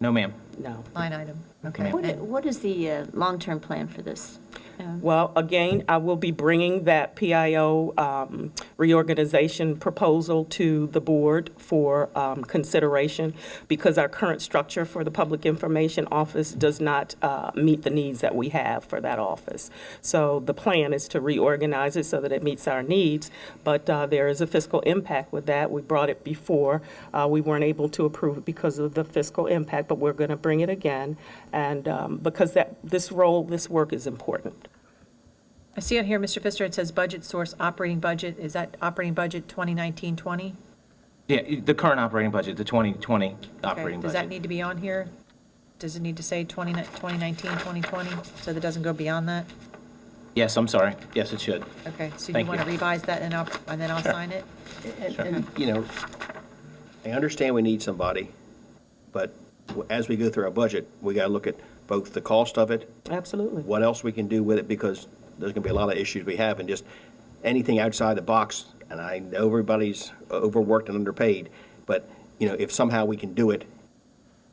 No, ma'am. No. Line item, okay. ma'am. What i- What is the uh, long-term plan for this? Well, again, I will be bringing that PIO um, reorganization proposal to the board for um, consideration because our current structure for the Public Information Office does not uh, meet the needs that we have for that office. So the plan is to reorganize it so that it meets our needs, but uh, there is a fiscal impact with that. We brought it before. Uh, We weren't able to approve it because of the fiscal impact, but we're going to bring it again. And um, because that, this role, this work is important. I see it here, Mr. Pfister, it says budget source, operating budget, is that operating budget 2019-20? Yeah, i- the current operating budget, the 2020 Okay, operating budget. does that need to be on here? Does it need to say 20 2019, 2020, so that doesn't go beyond that? Yes, I'm sorry. Yes, it should. Okay, so you Thank want to you. revise that and I'll, and then I'll sign it? And, and, you know, I understand we need somebody, but w- as we go through our budget, we got to look at both the cost of it, Absolutely. what else we can do with it, because there's going to be a lot of issues we have, and just anything outside the box, and I know everybody's overworked and underpaid, but, you know, if somehow we can do it,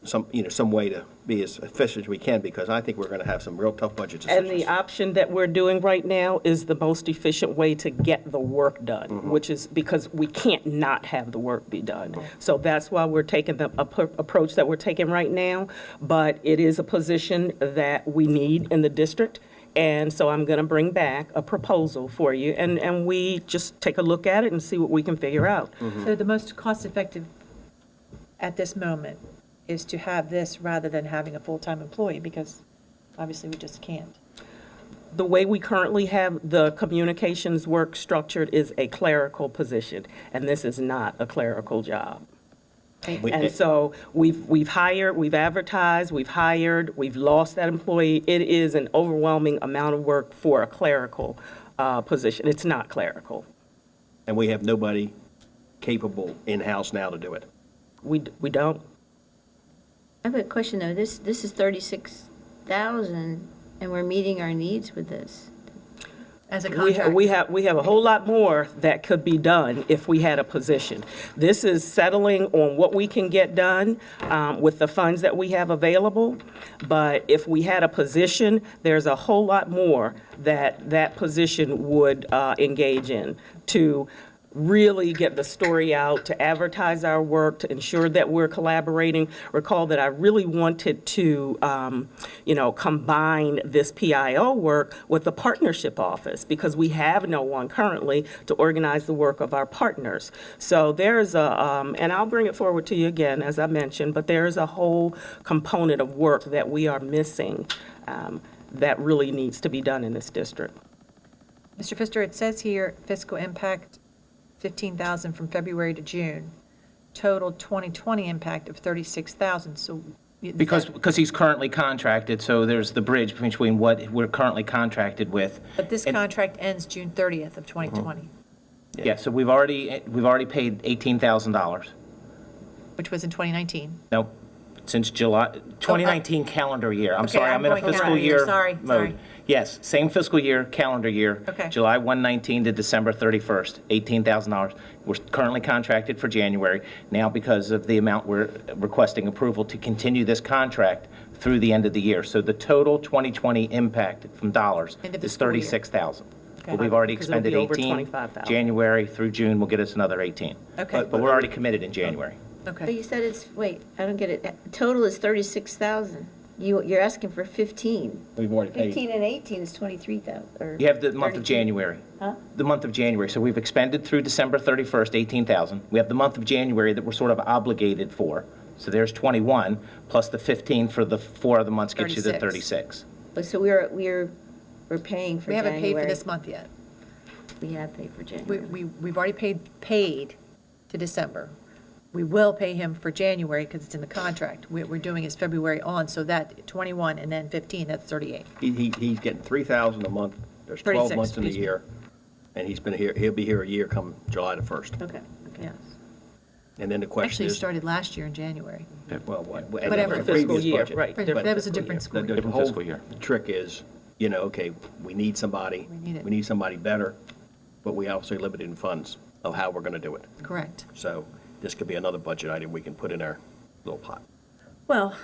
some, you know, some way to be as efficient as we can, because I think we're going to have some real tough budget And the decisions. option that we're doing right now is the most efficient way to get the work done, which is because we can't not have the work be done. So that's why we're taking the appro- approach that we're taking right now, but it is a position that we need in the district. And so I'm going to bring back a proposal for you, and, and we just take a look at it and see what we can figure out. So the most cost-effective at this moment is to have this rather than having a full-time employee, because obviously we just can't. The way we currently have the communications work structured is a clerical position, and this is not a clerical job. We- And so we've, we've hired, we've advertised, we've hired, we've lost that employee. It is an overwhelming amount of work for a clerical uh, position. It's not clerical. And we have nobody capable in-house now to do it. We, d- we don't. I've got a question, though. This, this is 36,000, and we're meeting our needs with this. As a We contract. have, we have, we have a whole lot more that could be done if we had a position. This is settling on what we can get done um, with the funds that we have available. But if we had a position, there's a whole lot more that that position would uh, engage in to really get the story out, to advertise our work, to ensure that we're collaborating. Recall that I really wanted to, um, you know, combine this PIO work with the partnership office because we have no one currently to organize the work of our partners. So there's a, um, and I'll bring it forward to you again, as I mentioned, but there is a whole component of work that we are missing um, that really needs to be done in this district. Mr. Pfister, it says here fiscal impact 15,000 from February to June, total 2020 impact of 36,000, so. is Because, that- because he's currently contracted, so there's the bridge between what we're currently contracted with. But this contract ends June 30th of 2020, Uh-huh. Yeah, so we've already, eh, we've already paid $18,000. which was in 2019. No, since July, 2019 calendar year. I'm Oh, Okay, sorry, I'm I'm in a going fiscal calendar year. year Sorry, sorry. mode. Yes, same fiscal year, calendar year. Okay. July 119 to December 31st, $18,000. We're currently contracted for January. Now, because of the amount, we're requesting approval to continue this contract through the end of the year. So the total 2020 impact from dollars End of is fiscal year. 36,000. Okay. But we've already Because it'll be expended over 18. 25,000. January through June will get us another 18. Okay. But but we're already committed in January. But Okay. you said it's, wait, I don't get it. Total is 36,000. You, you're asking for 15. We've already 15 and 18 is 23,000, or. You have the month of 32. January. Huh? The month of January. So we've expended through December 31st, 18,000. We have the month of January that we're sort of obligated for. So there's 21, plus the 15 for the four other months gets you to 36. 36. But So we're, we're, we're paying for We January. haven't paid for this month yet. We have paid for We, January. we, we've already paid, paid to December. We will pay him for January because it's in the contract. What we're doing is February on, so that 21 and then 15, that's 38. He, he, he's getting three thousand a month, there's twelve 36, months in a excuse me. year, and he's been here, he'll be here a year come July the first. Okay, okay. Yeah. And then the Actually, question it is, started last year in January. well, what? Whatever. the Fiscal previous year, budget. right, But different That was a the- different the- school the year. Different whole fiscal year. Trick is, you know, okay, we need somebody, We need it. we need somebody better, but we also limited in funds of how we're gonna do it. Correct. So this could be another budget item we can put in our little pot. Well,